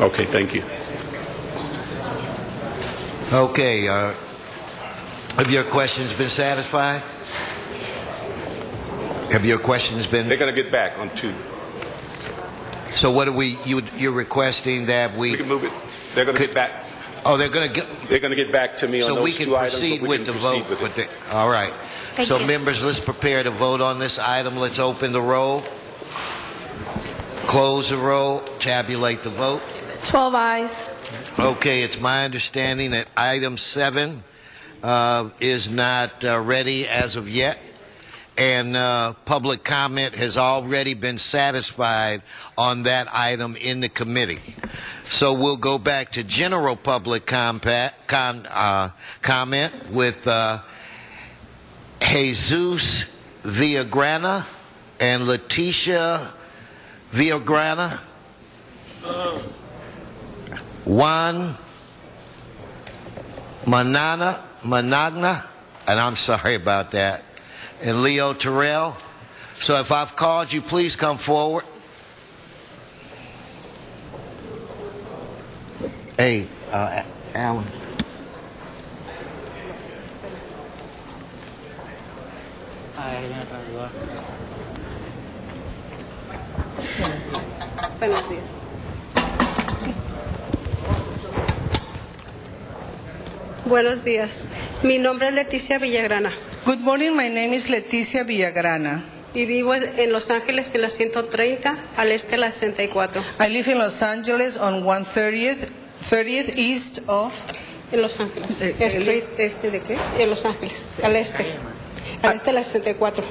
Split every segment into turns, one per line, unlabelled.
Okay, thank you.
Okay, uh, have your questions been satisfied? Have your questions
They're
been,
going to get back on two.
so what are we, you, you're requesting that
We
we,
can move it. They're going to get back,
oh, they're going to get,
they're going to get back to me on
so we
those
can
two items. but
proceed
we
with the
can
vote.
proceed with
with
it.
the- All right.
Thank
So
you.
members, let's prepare to vote on this item. Let's open the roll, close the roll, tabulate the vote.
12 eyes.
Okay, it's my understanding that item seven uh, is not uh, ready as of yet, and uh, public comment has already been satisfied on that item in the committee. So we'll go back to general public compa- con- uh, comment with uh, Jesus Villagrana and Letitia Villagrana. Juan Manana, Managna, and I'm sorry about that, and Leo Terrell. So if I've called you, please come forward. Hey, uh, Alan.
Buenos días. Buenos días. Mi nombre es Leticia Villagrana
Good morning. My name is Leticia Villagrana.
y vivo en Los Ángeles en la 130 al este de la 64
I live in Los Angeles on 130th, 30th east of.
en Los Ángeles.
Eh, el
Estoy
est- ¿Este de qué?
en Los Ángeles al este. Al este de la 64.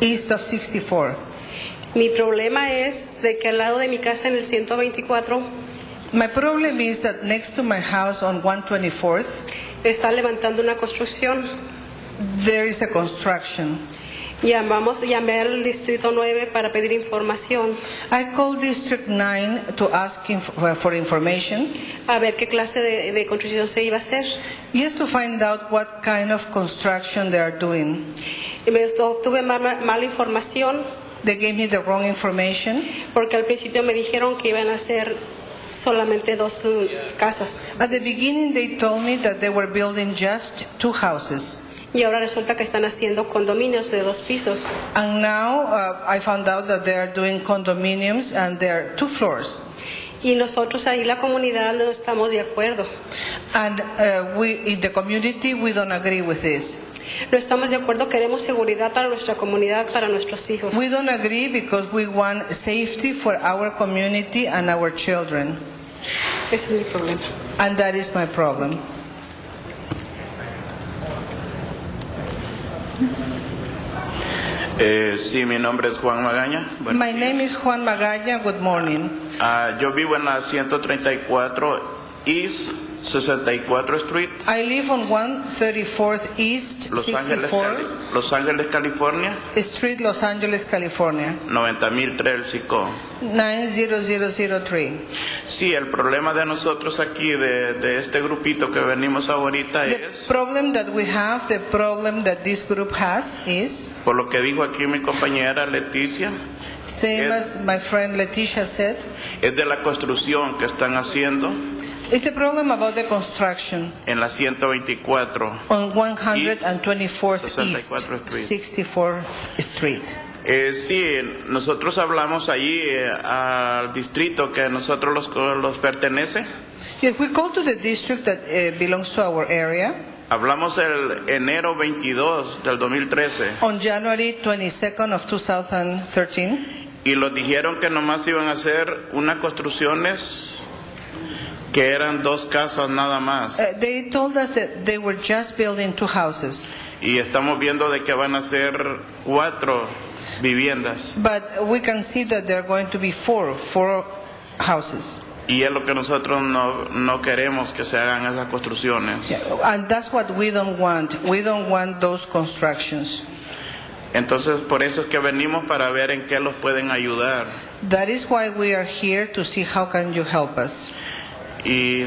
East of 64.
Mi problema es de que al lado de mi casa en el 124
My problem is that next to my house on 124th,
está levantando una construcción.
there is a construction.
Llamamos, llamé al distrito 9 para pedir información,
I called District 9 to ask inf- uh, for information.
a ver qué clase de- de construcción se iba a hacer.
Yes, to find out what kind of construction they are doing.
Y me obtuve ma- ma- mala información
They gave me the wrong information.
porque al principio me dijeron que iban a hacer solamente dos mm, casas
At the beginning, they told me that they were building just two houses.
y ahora resulta que están haciendo condominios de dos pisos.
And now uh, I found out that they are doing condominiums and there are two floors.
Y nosotros ahí la comunidad no estamos de acuerdo.
And uh, we, in the community, we don't agree with this.
No estamos de acuerdo, queremos seguridad para nuestra comunidad, para nuestros hijos.
We don't agree because we want safety for our community and our children.
Ese es mi problema.
And that is my problem.
Eh, sí, mi nombre es Juan Magaña. Buenos
my name
días.
is Juan Magalla. Good morning.
Ah, yo vivo en la 134 East 64 Street,
I live on 134th East
Los Ángeles,
64th
Cali- Los Ángeles, California,
Street, Los Angeles, California,
90003 El Sico.
90003.
Sí, el problema de nosotros aquí, de, de este grupito que venimos ahorita,
The
es,
problem that we have, the problem that this group has is,
por lo que dijo aquí mi compañera Leticia,
same
Yes.
as my friend Leticia said,
es de la construcción que están haciendo
it's the problem about the construction
en la 124.
on 124th East,
64th Street.
64th Street.
Eh, sí, nosotros hablamos allí eh, al distrito que a nosotros los, los pertenece.
If we go to the district that uh, belongs to our area,
Hablamos el enero 22 del 2013
on January 22nd of 2013,
y los dijeron que nomás iban a hacer unas construcciones que eran dos casas nada más
uh, they told us that they were just building two houses,
y estamos viendo de que van a ser cuatro viviendas
but we can see that there are going to be four, four houses.
y es lo que nosotros no, no queremos que se hagan esas construcciones.
And that's what we don't want. We don't want those constructions.
Entonces por eso es que venimos para ver en qué los pueden ayudar.
That is why we are here to see how can you help us.
Y,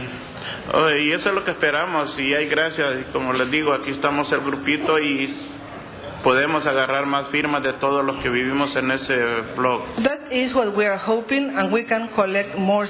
oh, y eso es lo que esperamos y hay gracias. Y como les digo, aquí estamos el grupito y s- podemos agarrar más firmas de todos los que vivimos en ese blog.
That is what we are hoping and we can collect more